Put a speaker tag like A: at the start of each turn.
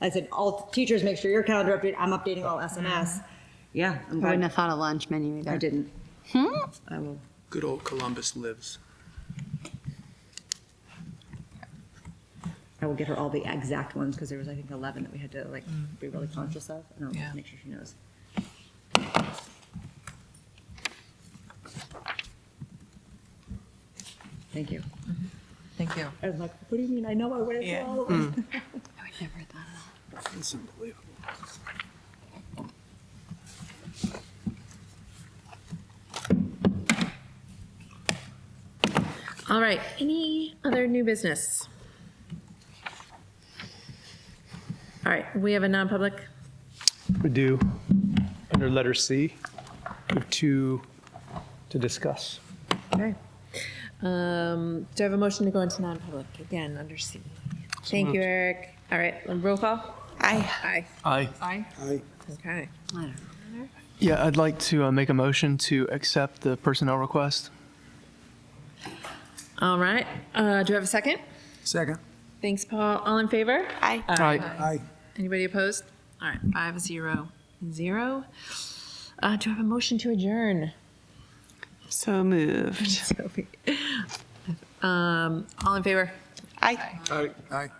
A: I said, all teachers, make sure your calendar updated. I'm updating all SMS. Yeah, I'm
B: I wouldn't
A: glad
B: have thought of lunch menu either.
A: I didn't.
B: Hmm?
A: I will.
C: Good old Columbus lives.
A: I will get her all the exact ones because there was, I think, 11 that we had to like be really conscious of. And I'll
C: Yeah.
A: make sure she knows. Thank you.
D: Thank you.
A: I was like, what do you mean? I know I went through
D: Yeah.
A: all of them.
B: I would never have thought of
C: It's unbelievable.
D: All right, any other new business? All right, we have a non-public.
E: We do, under letter C, we have two to discuss.
D: Okay. Um, do I have a motion to go into non-public again under C? Thank you, Eric. All right, roll call? Aye.
F: Aye.
D: Aye. Aye. Okay.
B: that. I don't know.
F: Yeah, I'd like to uh, make a motion to accept the personnel request.
D: All right, uh, do I have a second?
C: Second.
D: Thanks, Paul. All in favor? Aye.
F: Aye.
C: Aye.
D: Anybody opposed? All right, five, zero, zero. Uh, do I have a motion to adjourn?
G: So moved.
D: Sophie. Um, all in favor?
C: Aye. Aye.